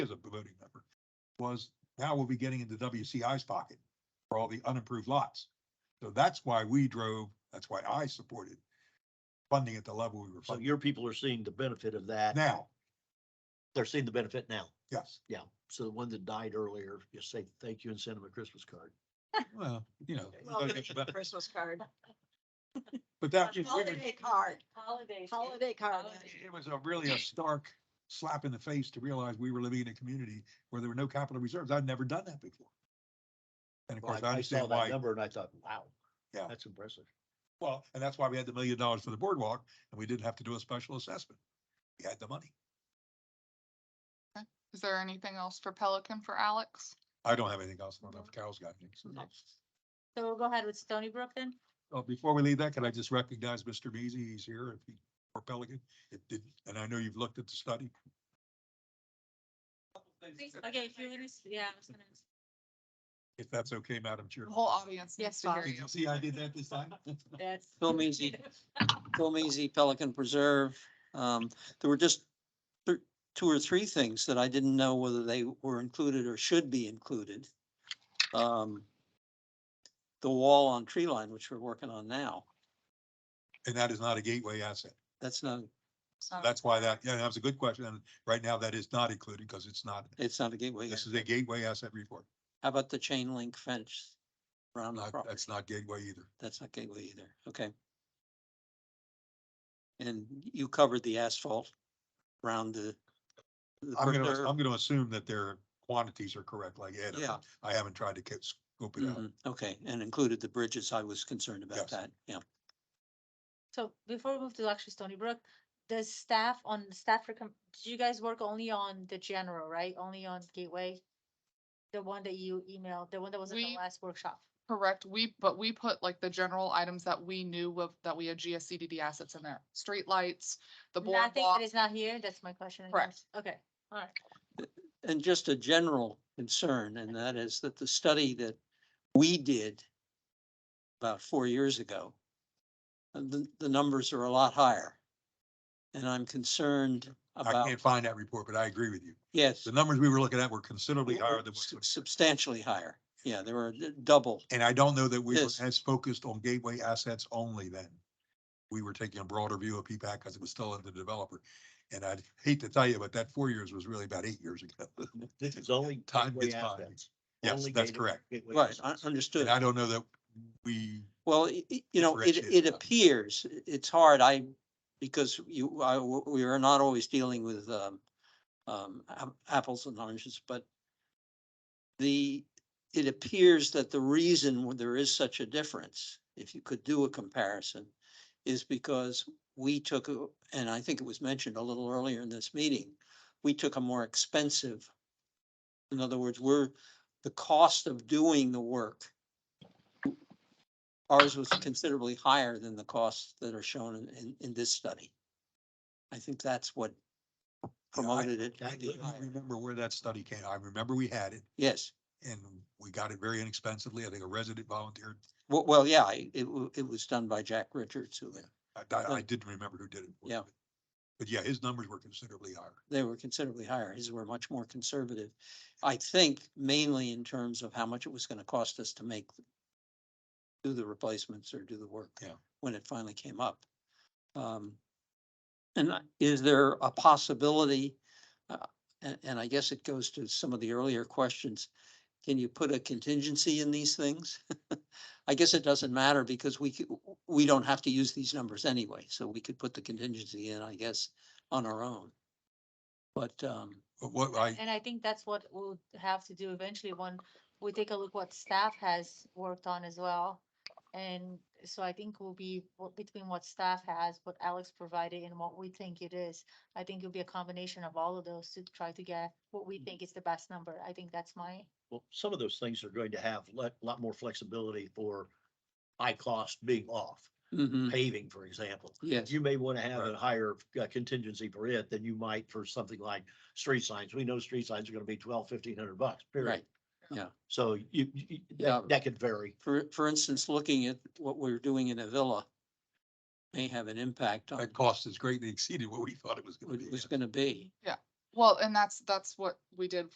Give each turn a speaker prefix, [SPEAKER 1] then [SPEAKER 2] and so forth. [SPEAKER 1] was now we'll be getting into WCI's pocket for all the unimproved lots. So that's why we drove, that's why I supported funding at the level we were
[SPEAKER 2] So
[SPEAKER 1] funding
[SPEAKER 2] your people are seeing the benefit of that.
[SPEAKER 1] now,
[SPEAKER 2] They're seeing the benefit now.
[SPEAKER 1] yes.
[SPEAKER 2] Yeah. So the one that died earlier, just say thank you and send them a Christmas card.
[SPEAKER 1] Well, you know,
[SPEAKER 3] Well,
[SPEAKER 1] but-
[SPEAKER 3] Christmas card,
[SPEAKER 1] but that, it was-
[SPEAKER 3] holiday card,
[SPEAKER 4] Holiday.
[SPEAKER 3] holiday card.
[SPEAKER 1] it was a really a stark slap in the face to realize we were living in a community where there were no capital reserves. I'd never done that before. And of
[SPEAKER 2] Well,
[SPEAKER 1] course, I
[SPEAKER 2] I saw
[SPEAKER 1] understand
[SPEAKER 2] that
[SPEAKER 1] why
[SPEAKER 2] number and I thought, wow.
[SPEAKER 1] Yeah.
[SPEAKER 2] That's impressive.
[SPEAKER 1] Well, and that's why we had the million dollars for the boardwalk and we didn't have to do a special assessment. We had the money.
[SPEAKER 5] Is there anything else for Pelican for Alex?
[SPEAKER 1] I don't have anything else. I don't know if Carol's got anything.
[SPEAKER 4] No. So we'll go ahead with Stony Brook then?
[SPEAKER 1] Uh, before we leave that, can I just recognize Mr. Beasy? He's here if he, or Pelican. It did, and I know you've looked at the study.
[SPEAKER 4] Okay, if you're gonna, s- yeah. I was gonna s-
[SPEAKER 1] If that's okay, Madam Chair.
[SPEAKER 5] The whole audience needs
[SPEAKER 3] Yes,
[SPEAKER 5] to hear
[SPEAKER 3] Bob.
[SPEAKER 1] Did
[SPEAKER 5] you.
[SPEAKER 1] you See, I did that this time.
[SPEAKER 4] That's.
[SPEAKER 6] Bill Measy, Bill Measy, Pelican Preserve. Um, there were just th- two or three things that I didn't know whether they were included or should be included. Um, the wall on tree line, which we're working on now,
[SPEAKER 1] And that is not a gateway asset.
[SPEAKER 6] that's not,
[SPEAKER 1] That's why that, yeah, that was a good question. And right now that is not included because it's not,
[SPEAKER 6] it's not a gateway.
[SPEAKER 1] this is
[SPEAKER 6] yet.
[SPEAKER 1] a gateway asset report.
[SPEAKER 6] How about the chain link fence around the
[SPEAKER 1] Not,
[SPEAKER 6] property?
[SPEAKER 1] that's not gateway either.
[SPEAKER 6] That's not gateway either. Okay. And you covered the asphalt around the. the
[SPEAKER 1] I'm
[SPEAKER 6] preserve.
[SPEAKER 1] gonna, I'm gonna assume that their quantities are correct, like Ed.
[SPEAKER 6] Yeah.
[SPEAKER 1] I haven't tried to catch, scoop it out.
[SPEAKER 6] Mhm, Okay, and included the bridges. I was concerned about
[SPEAKER 1] Yes.
[SPEAKER 6] that, yeah.
[SPEAKER 4] So before we move to actually Stony Brook, does staff on the staff, recom- did you guys work only on the general, right? Only on Gateway? The one that you emailed, the one that was at the
[SPEAKER 5] We-
[SPEAKER 4] last workshop?
[SPEAKER 5] Correct. We, but we put like the general items that we knew of, that we had GSCDD assets in there. Streetlights, the
[SPEAKER 4] Nothing
[SPEAKER 5] boardwalk.
[SPEAKER 4] that is not here? That's my question. I
[SPEAKER 5] Correct.
[SPEAKER 4] guess. Okay, all right.
[SPEAKER 6] And just a general concern, and that is that the study that we did about four years ago, uh, the, the numbers are a lot higher. And I'm concerned
[SPEAKER 1] I
[SPEAKER 6] about,
[SPEAKER 1] can't find that report, but I agree with you.
[SPEAKER 6] yes,
[SPEAKER 1] The numbers we were looking at were considerably
[SPEAKER 6] w-
[SPEAKER 1] higher than,
[SPEAKER 6] s-
[SPEAKER 1] what-
[SPEAKER 6] substantially higher. Yeah, they were d- double.
[SPEAKER 1] and I don't know that we were
[SPEAKER 6] Yes.
[SPEAKER 1] as focused on gateway assets only then. We were taking a broader view of PPAC because it was still under developer. And I'd hate to tell you, but that four years was really about eight years ago.
[SPEAKER 2] This is only.
[SPEAKER 1] Time
[SPEAKER 2] gateway
[SPEAKER 1] gets by.
[SPEAKER 2] assets.
[SPEAKER 1] Yes,
[SPEAKER 2] Only
[SPEAKER 1] that's
[SPEAKER 2] gateway-
[SPEAKER 1] correct.
[SPEAKER 2] gateway
[SPEAKER 6] Right, I
[SPEAKER 2] assets.
[SPEAKER 6] understood.
[SPEAKER 1] And I don't know that we,
[SPEAKER 6] Well, i- i- you know, it,
[SPEAKER 1] Differentiate
[SPEAKER 6] it
[SPEAKER 1] that.
[SPEAKER 6] appears, i- it's hard, I, because you, I, w- we are not always dealing with, um, um, ap- apples and oranges, but the, it appears that the reason why there is such a difference, if you could do a comparison, is because we took, a- and I think it was mentioned a little earlier in this meeting, we took a more expensive, in other words, we're, the cost of doing the work ours was considerably higher than the costs that are shown in, in, in this study. I think that's what promoted it.
[SPEAKER 2] I
[SPEAKER 6] to be
[SPEAKER 1] I
[SPEAKER 6] higher.
[SPEAKER 1] remember where that study came. I remember we had it
[SPEAKER 6] Yes,
[SPEAKER 1] and we got it very inexpensively. I think a resident volunteered.
[SPEAKER 6] well, well, yeah, I- it, wa- it was done by Jack Richards, who,
[SPEAKER 1] I, I- I
[SPEAKER 6] Yeah.
[SPEAKER 1] didn't remember who did it. for us,
[SPEAKER 6] Yeah.
[SPEAKER 1] but- But yeah, his numbers were considerably higher.
[SPEAKER 6] they were considerably higher, his were much more conservative. I think mainly in terms of how much it was gonna cost us to make, do the replacements or do the work.
[SPEAKER 1] Yeah.
[SPEAKER 6] When it finally came up. Um, And I- is there a possibility, uh, and, and I guess it goes to some of the earlier questions, can you put a contingency in these things? I guess it doesn't matter because we, c- we don't have to use these numbers anyway, so we could put the contingency in, I guess, on our own. But, um,
[SPEAKER 1] But what I,
[SPEAKER 4] And I think that's what we'll have to do eventually when we take a look what staff has worked on as well. And so I think we'll be, what- between what staff has, what Alex provided and what we think it is, I think it'll be a combination of all of those to try to get what we think is the best number. I think that's my,
[SPEAKER 2] Well, some of those things are going to have a lot more flexibility for high cost being off,
[SPEAKER 6] mhm,
[SPEAKER 2] paving, for example.
[SPEAKER 6] yes,
[SPEAKER 2] You may want to have
[SPEAKER 1] Hmm. Right.
[SPEAKER 2] a higher uh, contingency for it than you might for something like street signs. We know street signs are going to be twelve, fifteen hundred bucks, period.
[SPEAKER 6] right. Yeah.
[SPEAKER 2] So you, you- you-
[SPEAKER 6] Yeah.
[SPEAKER 2] that, that could vary.
[SPEAKER 6] For, for instance, looking at what we're doing in Avila may have an impact on
[SPEAKER 1] that cost has greatly exceeded what we thought it was gonna
[SPEAKER 6] what
[SPEAKER 1] be.
[SPEAKER 6] it was going to be.
[SPEAKER 5] Well, and that's, that's what we did